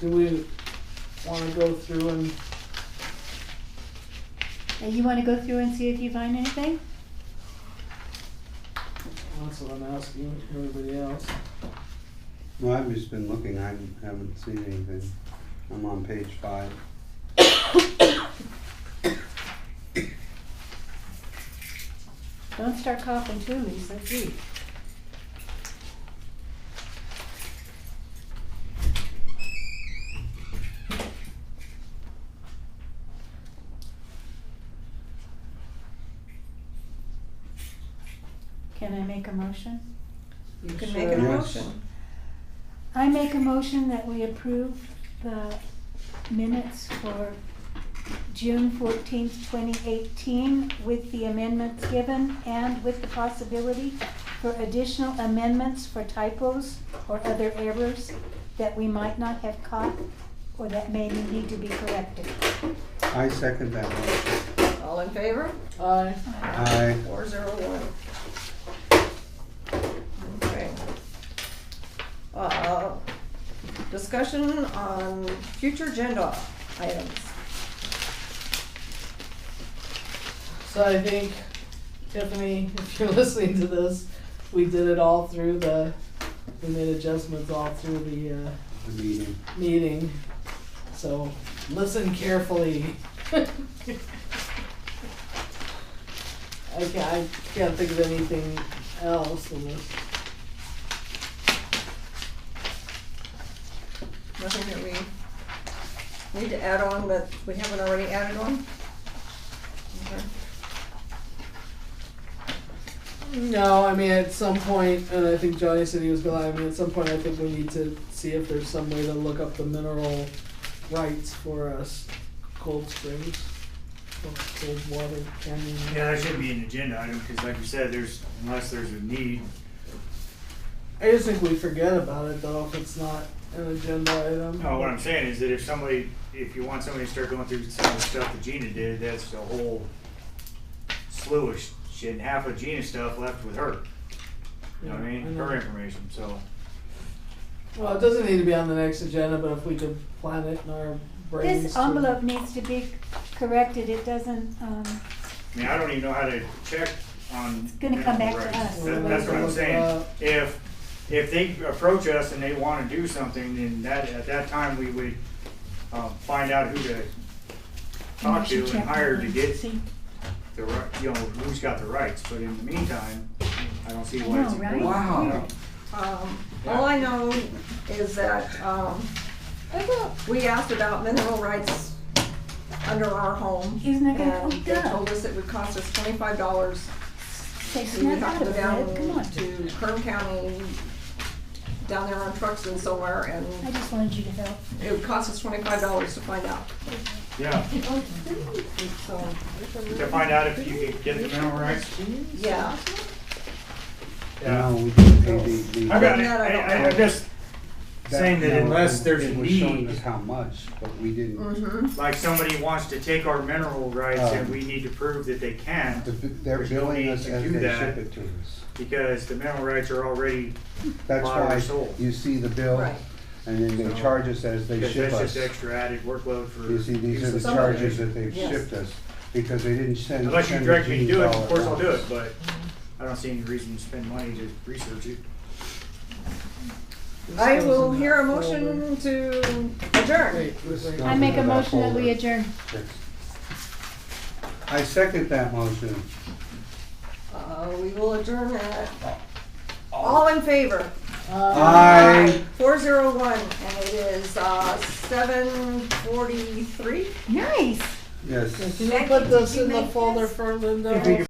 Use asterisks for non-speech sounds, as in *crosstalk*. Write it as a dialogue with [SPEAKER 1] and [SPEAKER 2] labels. [SPEAKER 1] do we wanna go through and,
[SPEAKER 2] And you wanna go through and see if you find anything?
[SPEAKER 1] that's what I'm asking everybody else.
[SPEAKER 3] Well, I've just been looking, I haven't seen anything. I'm on page five.
[SPEAKER 2] Don't start coughing too, Lisa, please. Can I make a motion?
[SPEAKER 4] You can make a
[SPEAKER 3] Sure.
[SPEAKER 4] motion.
[SPEAKER 2] I make a motion that we approve the minutes for June fourteenth, twenty eighteen, with the amendments given and with the possibility for additional amendments for typos or other errors that we might not have caught or that may need to be corrected.
[SPEAKER 3] I second that one.
[SPEAKER 4] All in favor?
[SPEAKER 1] Aye.
[SPEAKER 3] Aye.
[SPEAKER 4] Four zero one. Okay. Uh, Discussion on future agenda items.
[SPEAKER 1] So I think, Tiffany, *laughs* if you're listening to this, we did it all through the, we made adjustments all through the, uh,
[SPEAKER 3] the meeting.
[SPEAKER 1] meeting, so listen carefully. *laughs* I can't, I can't think of anything else unless,
[SPEAKER 4] Nothing that we need to add on that we haven't already added on? Okay.
[SPEAKER 1] no, I mean, at some point, and I think Johnny said he was gonna, I mean, at some point, I think we need to see if there's some way to look up the mineral rights for us, cold springs, or cold water canyon.
[SPEAKER 5] Yeah, that should be an agenda item, because like you said, there's, unless there's a need,
[SPEAKER 1] I just think we forget about it though, if it's not an agenda item.
[SPEAKER 5] no, what Oh, I'm saying is that if somebody, if you want somebody to start going through some of the stuff that Gina did, that's a whole slew of shit, and half of Gina's stuff left with her, you know what I mean,
[SPEAKER 1] know.
[SPEAKER 5] her information, so.
[SPEAKER 1] Well, it doesn't need to be on the next agenda, but if we could plan it in our brains.
[SPEAKER 2] This
[SPEAKER 1] to-
[SPEAKER 2] envelope needs to be corrected, it doesn't, um,
[SPEAKER 5] I mean, I don't even know how to check on. It's
[SPEAKER 2] gonna come back to us.
[SPEAKER 5] That's what I'm saying, if, if they approach us and they wanna do something, then that, at that time, we would, um, find out who to talk to and hire to get
[SPEAKER 2] See?
[SPEAKER 5] the right, you know, who's got the rights, but in the meantime, I don't see
[SPEAKER 2] I
[SPEAKER 5] why it's
[SPEAKER 2] know, right?
[SPEAKER 5] important.
[SPEAKER 3] Wow.
[SPEAKER 4] Um, all I know is that, um, we asked about mineral rights under our home.
[SPEAKER 2] Isn't that gonna-
[SPEAKER 4] And
[SPEAKER 2] oh,
[SPEAKER 4] they
[SPEAKER 2] duh.
[SPEAKER 4] told us it would cost us twenty-five dollars
[SPEAKER 2] Say,
[SPEAKER 4] so you
[SPEAKER 2] snap
[SPEAKER 4] have
[SPEAKER 2] out
[SPEAKER 4] to
[SPEAKER 2] of
[SPEAKER 4] go
[SPEAKER 2] it, come
[SPEAKER 4] down
[SPEAKER 2] on.
[SPEAKER 4] to Kern County, down there on trucks and somewhere,
[SPEAKER 2] I
[SPEAKER 4] and
[SPEAKER 2] just wanted you to help.
[SPEAKER 4] it would cost us twenty-five dollars to find out,
[SPEAKER 5] Yeah,
[SPEAKER 4] so,
[SPEAKER 5] to find out if you could get the mineral rights.
[SPEAKER 4] yeah.
[SPEAKER 3] No, we didn't pay the- the-
[SPEAKER 5] I got it,
[SPEAKER 4] No, no, no.
[SPEAKER 5] I, am just
[SPEAKER 3] that-
[SPEAKER 5] saying that
[SPEAKER 3] no,
[SPEAKER 5] unless
[SPEAKER 3] it-
[SPEAKER 5] there's a
[SPEAKER 3] It was showing us
[SPEAKER 5] need,
[SPEAKER 3] how much, but we didn't,
[SPEAKER 4] Mm-hmm,
[SPEAKER 5] like somebody wants to take our mineral rights and we need to prove that they can,
[SPEAKER 3] Uh, the- they're
[SPEAKER 5] There's no
[SPEAKER 3] billing
[SPEAKER 5] need
[SPEAKER 3] us
[SPEAKER 5] to
[SPEAKER 3] as
[SPEAKER 5] do
[SPEAKER 3] they
[SPEAKER 5] that.
[SPEAKER 3] ship it to us.
[SPEAKER 5] because the mineral rights are already,
[SPEAKER 3] That's
[SPEAKER 5] Buyer
[SPEAKER 3] why
[SPEAKER 5] sold.
[SPEAKER 3] you see the bill,
[SPEAKER 4] Right.
[SPEAKER 3] and then they
[SPEAKER 5] So-
[SPEAKER 3] charge us as they
[SPEAKER 5] because
[SPEAKER 3] ship
[SPEAKER 5] that's
[SPEAKER 3] us.
[SPEAKER 5] just extra added workload for.
[SPEAKER 3] You see, these are the
[SPEAKER 4] Some of
[SPEAKER 3] charges
[SPEAKER 5] it.
[SPEAKER 3] that they've
[SPEAKER 4] Yes.
[SPEAKER 3] shipped us, because they didn't send.
[SPEAKER 5] Unless you
[SPEAKER 3] send the
[SPEAKER 5] direct me to do it,
[SPEAKER 3] G's all
[SPEAKER 5] of
[SPEAKER 3] at
[SPEAKER 5] course I'll do
[SPEAKER 3] once.
[SPEAKER 5] it, but I don't see any reason to spend money to research it.
[SPEAKER 4] I will hear a motion to adjourn.
[SPEAKER 1] Wait, wait, wait.
[SPEAKER 3] No.
[SPEAKER 2] I make a motion that we adjourn.
[SPEAKER 3] I second that motion.
[SPEAKER 4] Uh, we will adjourn at, all in favor?
[SPEAKER 1] Uh,
[SPEAKER 3] Aye.
[SPEAKER 4] Four zero one, and it is, uh, seven forty-three?
[SPEAKER 2] Nice.
[SPEAKER 3] Yes.
[SPEAKER 1] Can you put this in the folder for Linda?